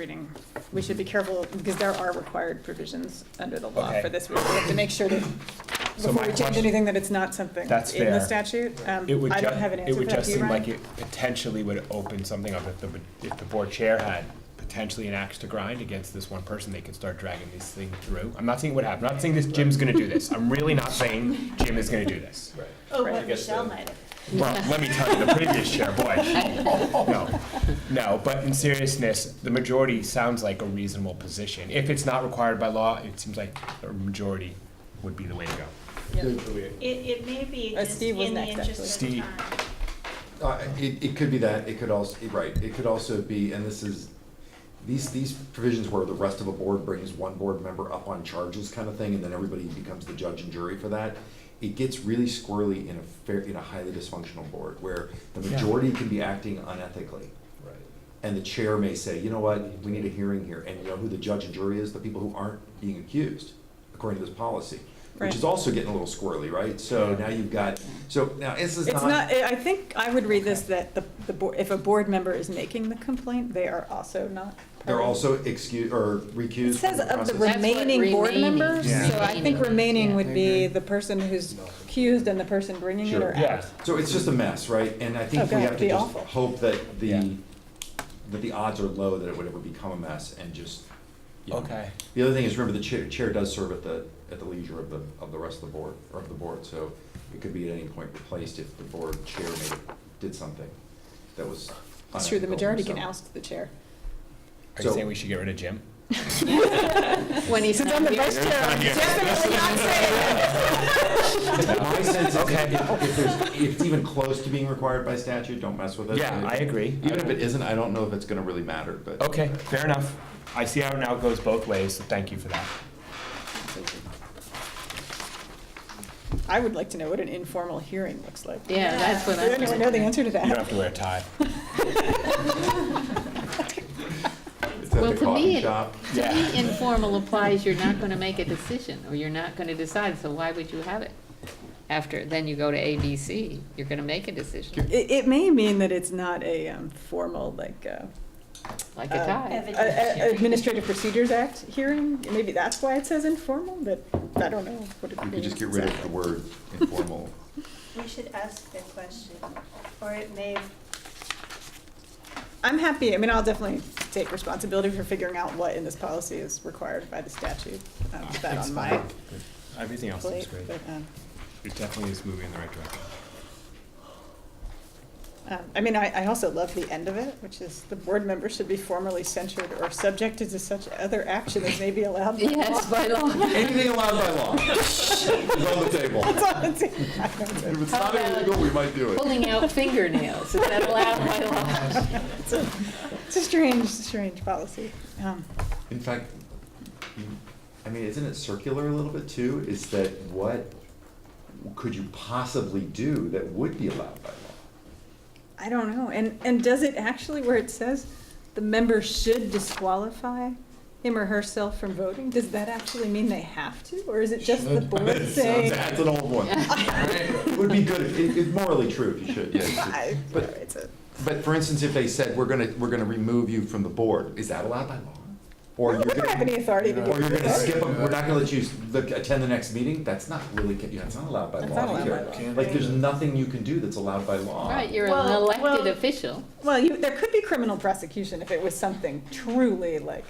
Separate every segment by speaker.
Speaker 1: reading. We should be careful because there are required provisions under the law
Speaker 2: Okay.
Speaker 1: for this. We have to make sure that,
Speaker 2: So
Speaker 1: before
Speaker 2: my
Speaker 1: we change
Speaker 2: question-
Speaker 1: anything, that it's not something
Speaker 2: That's
Speaker 1: in the
Speaker 2: fair.
Speaker 1: statute. Um,
Speaker 2: It would
Speaker 1: I don't
Speaker 2: just,
Speaker 1: have an
Speaker 2: it
Speaker 1: answer for
Speaker 2: would
Speaker 1: that.
Speaker 2: just
Speaker 1: Do you,
Speaker 2: seem
Speaker 1: Ryan?
Speaker 2: like it potentially would open something up if the, if the board chair had potentially an axe to grind against this one person, they could start dragging this thing through. I'm not saying what happened, I'm not saying this Jim's gonna do this, I'm really not saying Jim is gonna do this.
Speaker 3: Oh,
Speaker 1: Right.
Speaker 3: but Michelle might have.
Speaker 2: Well, let me tell you, the previous chair, boy, no, no, but in seriousness, the majority sounds like a reasonable position. If it's not required by law, it seems like a majority would be the way to go.
Speaker 3: It, it may be
Speaker 1: Uh,
Speaker 3: just
Speaker 1: Steve was
Speaker 3: in the
Speaker 1: next,
Speaker 3: interest of
Speaker 2: actually.
Speaker 3: time.
Speaker 4: Uh, It, it could be that, it could also, right, it could also be, and this is, these, these provisions where the rest of a board brings one board member up on charges kind of thing, and then everybody becomes the judge and jury for that. It gets really squirrely in a fair, in a highly dysfunctional board, where the
Speaker 2: Yeah.
Speaker 4: majority can be acting unethically. And the chair may say, you know what, we need a hearing here, and you know who the judge and jury is? The people who aren't being accused, according to this policy. Which is
Speaker 1: Right.
Speaker 4: also getting a little squirrely, right? So now you've got, so now this is
Speaker 1: It's not, I I think I would read this that the, the, bo- if a board member is making the complaint, they are also not. part
Speaker 4: They're
Speaker 1: of-
Speaker 4: also excused or recused.
Speaker 1: It says
Speaker 4: from the
Speaker 1: of the
Speaker 4: process.
Speaker 5: That's what
Speaker 1: remaining board
Speaker 5: remaining-
Speaker 1: members,
Speaker 2: Yeah.
Speaker 1: so I think
Speaker 5: remaining,
Speaker 1: remaining
Speaker 5: yeah.
Speaker 1: would be the person who's accused and the person bringing it
Speaker 4: Sure.
Speaker 1: or
Speaker 2: Yeah.
Speaker 1: out.
Speaker 4: So it's just a mess, right? And I think
Speaker 1: Okay,
Speaker 4: we have
Speaker 1: be
Speaker 4: to just
Speaker 1: awful.
Speaker 4: hope that
Speaker 2: Yeah.
Speaker 4: the, that the odds are low that it would ever become a mess and just, you know.
Speaker 2: Okay.
Speaker 4: The other thing is, remember, the chair, chair does serve at the, at the leisure of the, of the rest of the board, or of the board, so it could be at any point replaced if the board chair made, did something that was
Speaker 1: It's true, the
Speaker 4: unethical,
Speaker 1: majority can
Speaker 4: so.
Speaker 1: oust the chair.
Speaker 2: Are you
Speaker 4: So-
Speaker 2: saying we should get rid of Jim?
Speaker 5: When he's
Speaker 1: Since
Speaker 5: not
Speaker 1: I'm the
Speaker 5: here.
Speaker 1: vice chair, I'm definitely not saying it.
Speaker 4: My sense is if, if there's, if it's even close to being required by statute, don't mess with it.
Speaker 2: Yeah, I agree.
Speaker 4: Even if it isn't, I don't know if it's gonna really matter, but.
Speaker 2: Okay, fair enough. I see how it now goes both ways, so thank you for that.
Speaker 1: I would like to know what an informal hearing looks like.
Speaker 5: Yeah, that's what
Speaker 1: Does
Speaker 5: I'm.
Speaker 1: anyone know the answer to
Speaker 2: You don't have
Speaker 1: that?
Speaker 2: to wear a tie.
Speaker 4: It's at
Speaker 5: Well,
Speaker 4: the
Speaker 5: to
Speaker 4: coffee
Speaker 5: me, it-
Speaker 4: shop.
Speaker 5: To
Speaker 2: Yeah.
Speaker 5: me, informal applies, you're not gonna make a decision, or you're not gonna decide, so why would you have it? After, then you go to A, B, C, you're gonna make a decision,
Speaker 1: It, it may mean that it's not a um, formal, like, uh,
Speaker 5: like a
Speaker 3: Oh.
Speaker 1: Uh,
Speaker 5: tie.
Speaker 1: a- a- Administrative Procedures Act hearing, maybe that's why it says informal, but I don't know what it
Speaker 4: You
Speaker 1: means.
Speaker 4: could just get rid of the
Speaker 1: exactly.
Speaker 4: word informal.
Speaker 3: We should ask the question, or it may,
Speaker 1: I'm happy, I mean, I'll definitely take responsibility for figuring out what in this policy is required by the statute.
Speaker 4: Ah,
Speaker 1: Um, That
Speaker 2: It's
Speaker 1: on my
Speaker 2: fine. Everything else is
Speaker 1: plate,
Speaker 2: great.
Speaker 1: but, um,
Speaker 2: It definitely is moving in the right direction.
Speaker 1: Um, I mean, I, I also love the end of it, which is the board member should be formally censured or subjected to such other action as may be allowed. by
Speaker 5: Yes,
Speaker 1: law."
Speaker 5: by law.
Speaker 4: Anything allowed by law is on the table.
Speaker 1: It's on the table.
Speaker 4: If it's
Speaker 5: How
Speaker 4: not
Speaker 5: about-
Speaker 4: illegal, we might do it.
Speaker 5: Pulling out fingernails, is that allowed by law?
Speaker 1: It's a- it's a strange, strange policy. Um,
Speaker 4: In fact, you- I mean, isn't it circular a little bit too? Is that what could you possibly do that would be allowed by law?
Speaker 1: I don't know, and, and does it actually, where it says the member should disqualify him or herself from voting, does that actually mean they have to, or is it just the board saying?
Speaker 4: That's an old one. It Would be good, if- it, it's morally true if you should, yes.
Speaker 1: I-
Speaker 4: But-
Speaker 1: it's a-
Speaker 4: But for instance, if they said, we're gonna, we're gonna remove you from the board, is that allowed by law? Or you're
Speaker 1: We don't
Speaker 4: gonna-
Speaker 1: have any authority to do
Speaker 4: Or you're gonna
Speaker 1: that.
Speaker 4: skip, a- we're not gonna let you s- look- attend the next meeting, that's not really, ca- that's not allowed by
Speaker 1: That's not
Speaker 4: law
Speaker 1: allowed by
Speaker 4: either.
Speaker 1: law.
Speaker 4: Like, there's nothing you can do that's allowed by law.
Speaker 5: Right, you're an
Speaker 3: Well, well-
Speaker 5: elected official.
Speaker 1: Well, you, there could be criminal prosecution if it was something truly like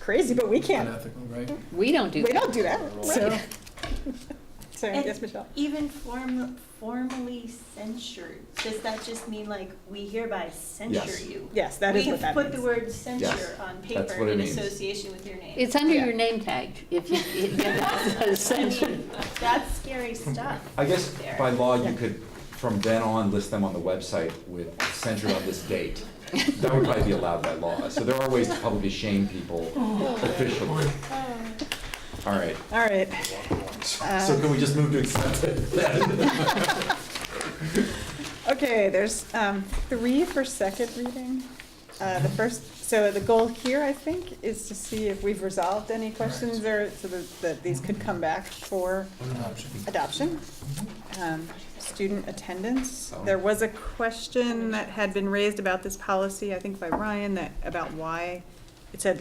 Speaker 1: crazy, but we can't,
Speaker 6: unethical, right?
Speaker 5: We don't do
Speaker 1: we
Speaker 5: that.
Speaker 1: don't do that, so. So,
Speaker 3: And-
Speaker 1: yes, Michelle?
Speaker 3: even form, formally censured, does that just mean like, we hereby censure
Speaker 4: Yes.
Speaker 3: you?
Speaker 1: Yes, that is what that
Speaker 3: We've put the
Speaker 1: means.
Speaker 3: word censure on
Speaker 4: that's what
Speaker 3: paper
Speaker 4: it
Speaker 3: in
Speaker 4: means.
Speaker 3: association with your name.
Speaker 5: It's under
Speaker 1: Yeah.
Speaker 5: your name tag, if you, it's censored.
Speaker 3: That's scary stuff.
Speaker 4: I guess
Speaker 3: there.
Speaker 4: by law,
Speaker 1: Yeah.
Speaker 4: you could, from then on, list them on the website with censored on this date. That would probably be allowed by law, so there are ways to publicly shame people officially. All right,
Speaker 1: All right, Uh,
Speaker 4: so can we just move to accept it then?
Speaker 1: okay, there's, um, three for second reading. Uh, the first, so the goal here, I think, is to see if we've resolved any questions or so that, that these could come back for adoption. Um, student attendance,
Speaker 4: Oh.
Speaker 1: there was a question that had been raised about this policy, I think by Ryan, that, about why it said